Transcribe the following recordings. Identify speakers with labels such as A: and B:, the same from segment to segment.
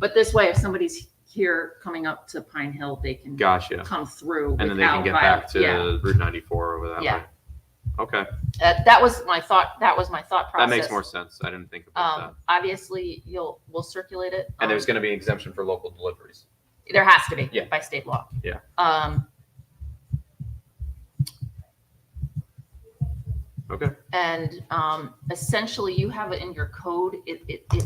A: But this way, if somebody's here coming up to Pine Hill, they can
B: Gotcha.
A: come through.
B: And then they can
A: without
B: get
A: viol-
B: back to
A: Yeah,
B: Route 94 over that
A: Yeah.
B: way. Okay,
A: Uh, that was my thought. That was my thought
B: that
A: process.
B: makes more sense. I didn't think about that.
A: Um, obviously, you'll we'll circulate it.
B: And there's
A: um,
B: going to be exemption for local deliveries.
A: there has to be
B: Yeah.
A: by state law.
B: Yeah.
A: Um,
B: Okay.
A: And um, essentially, you have it in your code. It, it, it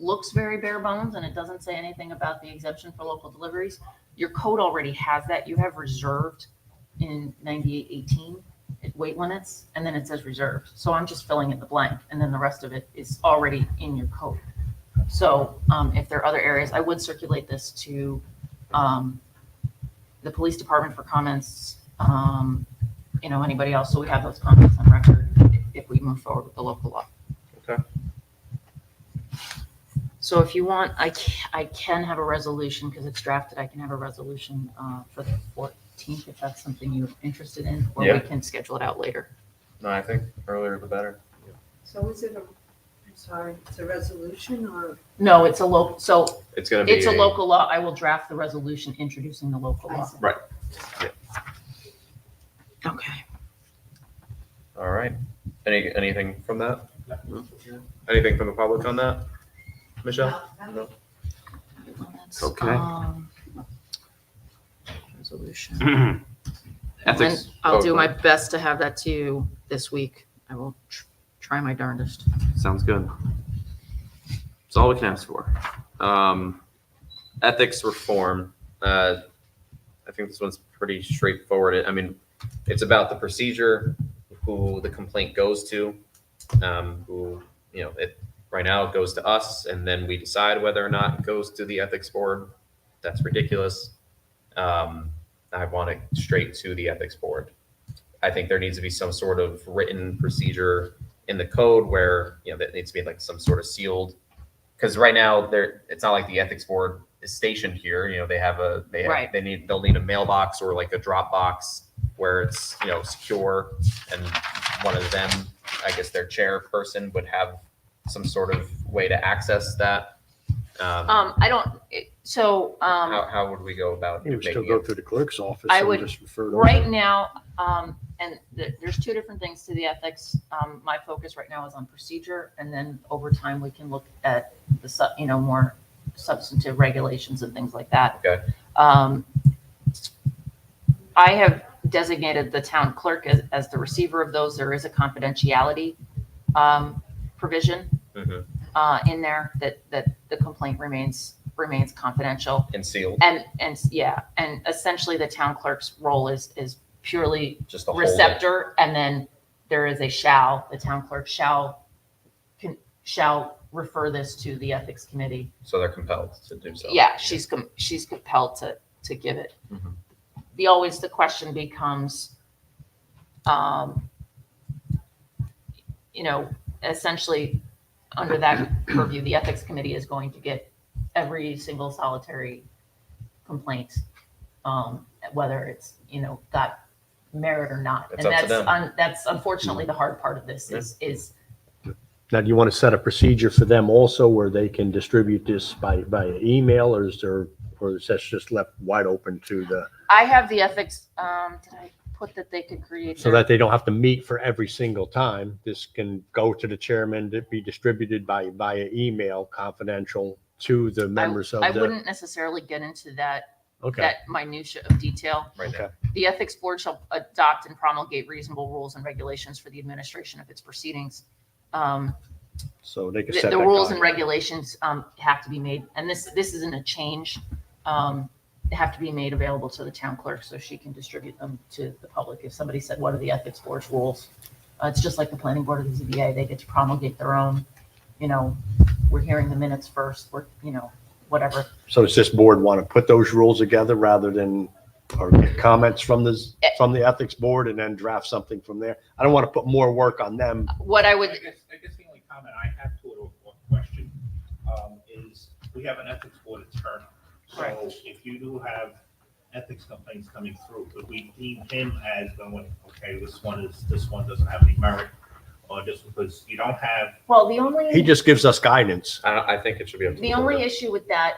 A: looks very bare bones and it doesn't say anything about the exemption for local deliveries. Your code already has that. You have reserved in 9818 weight limits, and then it says reserved. So I'm just filling in the blank, and then the rest of it is already in your code. So um, if there are other areas, I would circulate this to um, the police department for comments. Um, you know, anybody else, so we have those comments on record if we move forward with the local law.
B: Okay.
A: So if you want, I can, I can have a resolution, because it's drafted, I can have a resolution uh, for the fourteenth, if that's something you're interested in, or
B: Yeah.
A: we can schedule it out later.
B: No, I think earlier the better.
C: So is it a, I'm sorry, it's a resolution or?
A: No, it's a local, so
B: It's going to be.
A: it's a local law, I will draft the resolution introducing the local law.
B: Right. Yeah.
A: Okay.
B: All right. Any, anything from that? Anything from the public on that? Michelle? No.
A: Well, that's,
B: Okay.
A: um, Resolution.
B: Hmm. Ethics.
A: And I'll do
B: Oh,
A: my best to have that to you this week. I will tr- try my darndest.
B: Sounds good. It's all we can ask for. Um, ethics reform. Uh, I think this one's pretty straightforward. I mean, it's about the procedure, who the complaint goes to, um, who you know. It right now it goes to us, and then we decide whether or not it goes to the ethics board. That's ridiculous. Um, I want it straight to the ethics board. I think there needs to be some sort of written procedure in the code where, you know, that needs to be like some sort of sealed. Cause right now there, it's not like the ethics board is stationed here, you know, they have a, they,
A: Right.
B: have- they need, they'll need a mailbox or like a Dropbox where it's, you know, secure. And one of them, I guess their chairperson would have some sort of way to access that. Um,
A: Um, I don't, it- so,
B: how,
A: um,
B: how would we go about
D: You would still
B: making
D: go
B: it?
D: through the clerk's office.
A: I
D: and
A: would-
D: just refer to
A: right
D: it.
A: now, um, and th- there's two different things to the ethics. Um, my focus right now is on procedure and then over time we can look at the sub, you know, more substantive regulations and things like that.
B: Okay.
A: Um, I have designated the town clerk as, as the receiver of those. There is a confidentiality, um, provision
B: Mhm.
A: uh, in there that, that the complaint remains, remains confidential.
B: And sealed,
A: And, and yeah, and essentially the town clerk's role is, is purely
B: just the whole.
A: receptor. And then there is a shall, the town clerk shall, can, shall refer this to the ethics committee.
B: So they're compelled to do so.
A: Yeah, she's, com- she's compelled to, to give it.
B: Mhm.
A: The, always the question becomes, um, you know, essentially, under that purview, the ethics committee is going to get every single solitary complaint, um, whether it's, you know, got merit or not.
B: It's
A: And
B: up
A: that's,
B: to them. Mm-hmm.
A: un- that's unfortunately the hard part of this is, is,
D: Now, do you want to set a procedure for them also where they can distribute this by, by email or is there, or is that just left wide open to the,
A: I have the ethics, um, did I put that they could create?
D: so
A: their-
D: that they don't have to meet for every single time? This can go to the chairman, to be distributed by, via email, confidential to the members of
A: I
D: the.
A: wouldn't necessarily get into that
D: Okay,
A: that minutia of detail.
B: Right now.
A: The ethics board shall adopt and promulgate reasonable rules and regulations for the administration of its proceedings. Um,
D: so they can
A: The
D: set.
A: the
D: that
A: rules
D: guide.
A: and regulations um, have to be made, and this, this isn't a change. um, they Have to be made available to the town clerk so she can distribute them to the public. If somebody said, what are the ethics board's rules? Uh, It's just like the planning board of the ZBA, they get to promulgate their own, you know, we're hearing the minutes first, we're, you know, whatever.
D: So does this board want to put those rules together rather than, or get comments from the, from the ethics board and then draft something from there? I don't want to put more work on them.
A: What I
E: I
A: would,
E: guess, I guess the only comment I have to it or or question um, is we have an ethics board attorney.
A: Correct.
E: So if you do have ethics complaints coming through, could we deem him as going, okay, this one is, this one doesn't have any merit? or just because you don't have
A: Well, the only.
D: He just gives us guidance.
B: I, I think it should be up to
A: The
B: board.
A: only issue with that